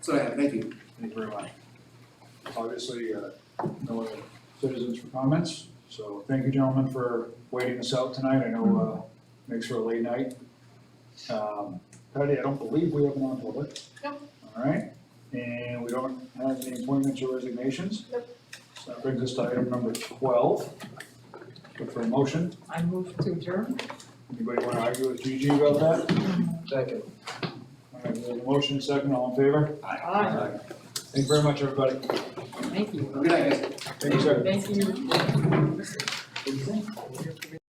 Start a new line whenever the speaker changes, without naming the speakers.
So, yeah, thank you.
Thank you very much. Obviously, uh, no other citizens for comments, so thank you gentlemen for waiting us out tonight. I know uh, makes for a late night. Um, Patty, I don't believe we have an non-public.
Nope.
All right, and we don't have any appointments or resignations.
Nope.
So that brings us to item number twelve. Look for a motion.
I move to adjourn.
Anybody want to argue with Gigi about that?
Second.
All right, we have a motion, second, all in favor?
Aye.
Thank you very much, everybody.
Thank you.
Good night, guys.
Thank you, sir.
Thank you.